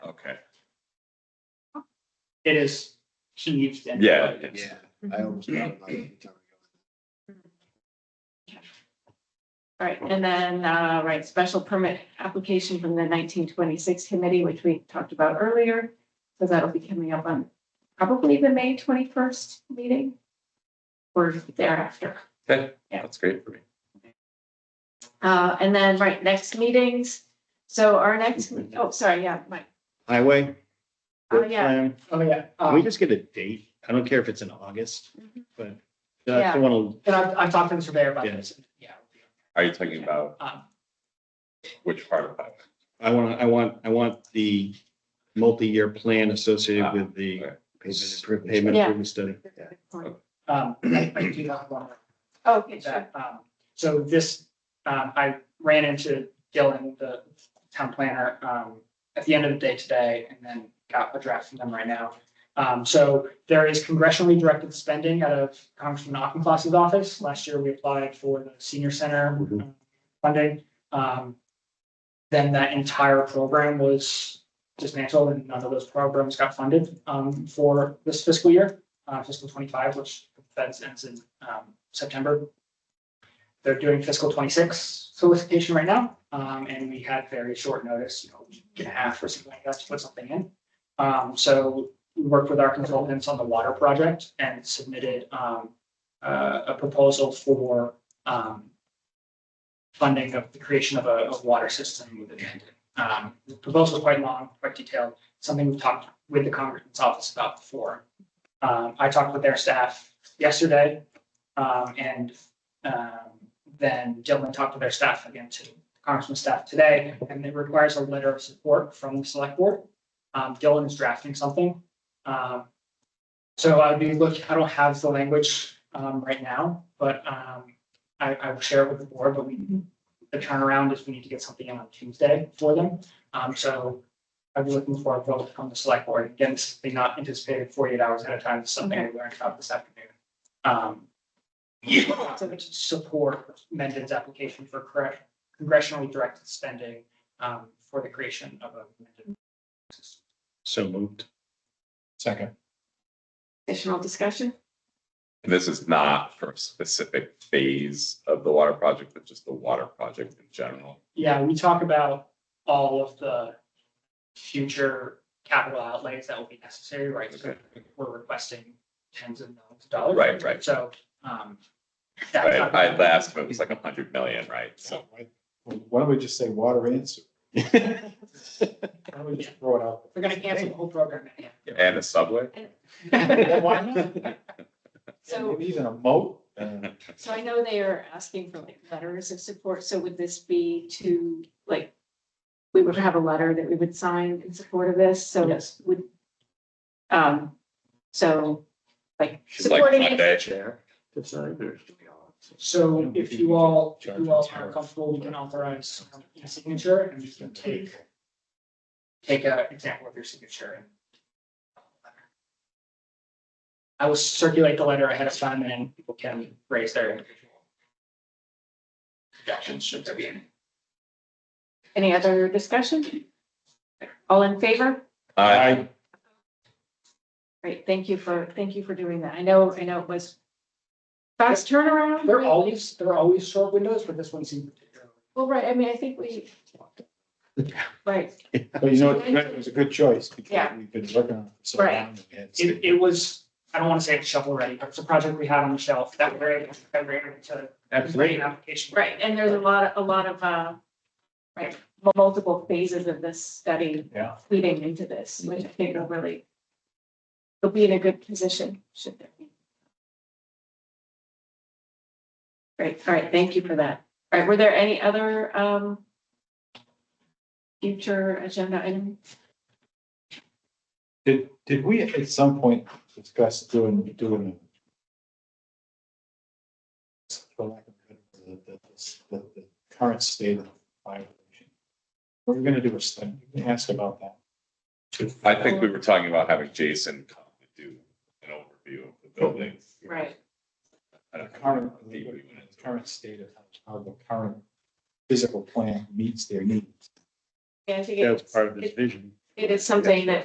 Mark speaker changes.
Speaker 1: it is heaved and.
Speaker 2: Yeah.
Speaker 3: Yeah, I
Speaker 4: Mhm.
Speaker 3: almost got it like a time ago.
Speaker 4: All right, and then, uh, right, special permit application from the nineteen twenty-six committee, which we talked about earlier. So that'll be coming up on probably the May twenty-first meeting. Or thereafter.
Speaker 2: Okay,
Speaker 4: Yeah.
Speaker 2: that's great for me.
Speaker 4: Uh, and then, right, next meetings. So our next, oh, sorry, yeah, Mike.
Speaker 3: Highway.
Speaker 4: Oh,
Speaker 3: work
Speaker 4: yeah.
Speaker 3: plan.
Speaker 1: Oh, yeah.
Speaker 3: Can we
Speaker 1: Um,
Speaker 3: just get a date? I don't care if it's in August,
Speaker 4: Mhm.
Speaker 3: but
Speaker 4: Yeah.
Speaker 3: I want
Speaker 1: and I've, I've talked to the surveyor about
Speaker 3: Yeah.
Speaker 1: this. Yeah.
Speaker 2: Are you talking about
Speaker 1: Um,
Speaker 2: which part of that?
Speaker 3: to, I want, I want, I want the multi-year plan associated
Speaker 2: Ah,
Speaker 3: with the
Speaker 2: okay.
Speaker 3: pavement
Speaker 4: Yeah.
Speaker 3: improvement study.
Speaker 1: um, I I do have one.
Speaker 4: Oh, Okay, sure.
Speaker 1: that, um, so this, um, I ran into Dylan, the town planner, um, at the end of the day today and then got a draft from them right now. Um, so there is congressionally directed spending out of Congressman Auchincloss's office. Last year, we applied for the senior center
Speaker 3: Mhm.
Speaker 1: uh, funding. Um, then that entire program was dismantled and none of those programs got funded, um, for this fiscal year, uh, fiscal twenty-five, which that's ends in, um, September. They're doing fiscal twenty-six solicitation right now, um, and we had very short notice, you know, we can half or something like that to put something in. Um, so we worked with our consultants on the water project and submitted, um, uh, a proposal for, um, funding of the creation of a, of water system with it. Um, the proposal is quite long, quite detailed, something we've talked with the Congressman's office about before. Um, I talked with their staff yesterday, um, and, um, then Dylan talked to their staff again, to Congressman's staff today, and it requires a letter of support from the select board. Um, Dylan is drafting something. Um, so I would be look, I don't have the language, um, right now, but, um, I, I will share it with the board, but we, the turnaround is we need to get something in on Tuesday for them. Um, so I'd be looking for a vote from the select board. Again, this is not anticipated forty-eight hours at a time, It's something we learned about this afternoon. Um, to support Mendon's application for correct- congressionally directed spending, um, for the creation of a Mendon system.
Speaker 3: So moved. Second.
Speaker 4: Additional discussion?
Speaker 2: And this is not for a specific phase of the water project, but just the water project in general.
Speaker 1: Yeah, we talk about all of the future capital outlays that will be necessary, right? So We're requesting tens of millions of dollars.
Speaker 2: Right, right.
Speaker 1: So, um. that's
Speaker 2: Right,
Speaker 1: not-
Speaker 2: I last, but it was like a hundred million, right? So,
Speaker 5: Why don't we just say water and sewer? Why don't we just throw it out?
Speaker 1: We're gonna cancel the whole program.
Speaker 2: and a subway?
Speaker 5: there? Why not?
Speaker 4: So,
Speaker 5: Maybe Even a moat? uh,
Speaker 4: so I know they are asking for like letters of support. So would this be to, like, we would have a letter that we would sign in support of this, so.
Speaker 1: Yes.
Speaker 4: Would, um, so, like,
Speaker 2: She's like
Speaker 4: supporting it.
Speaker 2: Monday.
Speaker 1: So if you all, if you all are comfortable, we can authorize a signature and you can take, take an example of your signature. and I will circulate the letter ahead of time and then people can raise their individual objections should there be any.
Speaker 4: Any other discussion? All in favor?
Speaker 2: I,
Speaker 4: Great, thank you for, thank you for doing that. I know, I know it was fast turnaround.
Speaker 1: They're always, they're always short windows, but this one seemed particularly.
Speaker 4: Well, right, I mean, I think we. Right,
Speaker 5: But you know, what, it was a good choice. because
Speaker 4: Yeah.
Speaker 5: We've been working on it for so long.
Speaker 4: Right.
Speaker 5: and we had to-
Speaker 1: It, it was, I don't want to say it's shovel ready, but it's a project we had on the shelf that we're able, that we're able to. complete an Application.
Speaker 4: right, and there's a lot, a lot of, uh, right, multiple phases of this study.
Speaker 5: Yeah.
Speaker 4: Leading into this, which I think will really, will be in a good position, should there be. Great, all right, thank you for that. All right, were there any other, um, future agenda items?
Speaker 5: Did, did we at some point discuss doing, doing? a- for lack of a better word, The, the, the- the current state of violation. We're gonna do a study, we asked about that.
Speaker 2: I think we were talking about having Jason come to do an overview of the building.
Speaker 4: Right.
Speaker 2: I
Speaker 5: The
Speaker 2: don't know.
Speaker 5: current,
Speaker 2: I
Speaker 5: the
Speaker 2: think we went into it.
Speaker 5: current state of how the current physical plan meets their needs.
Speaker 4: Yeah, I think
Speaker 3: That's
Speaker 4: it's,
Speaker 3: part of this vision.
Speaker 4: it is something that